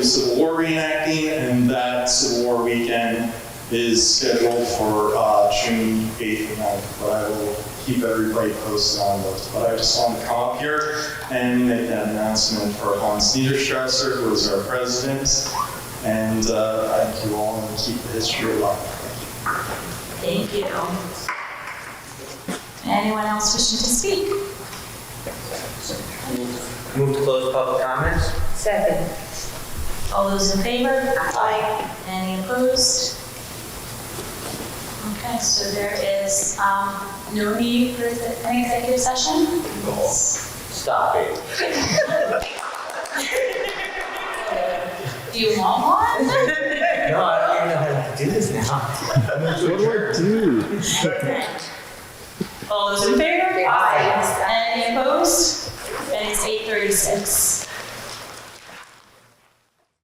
Civil War reenacting, and that Civil War weekend is scheduled for uh, June 8th and 9th, but I will keep everybody posted on those. But I just wanted to come up here and make that announcement for Hans Niederstrasser, who is our president, and uh, thank you all, and keep the history alive. Thank you. Thank you. Anyone else wishing to speak? Move to close public comments. Second. All those in favor? Aye. Any opposed? Okay, so there is um, no need for the- an executive session? Stop it. Do you want one? No, I don't even know how to do this now. What do I do? All those in favor? Aye. Any opposed? And it's 8:36.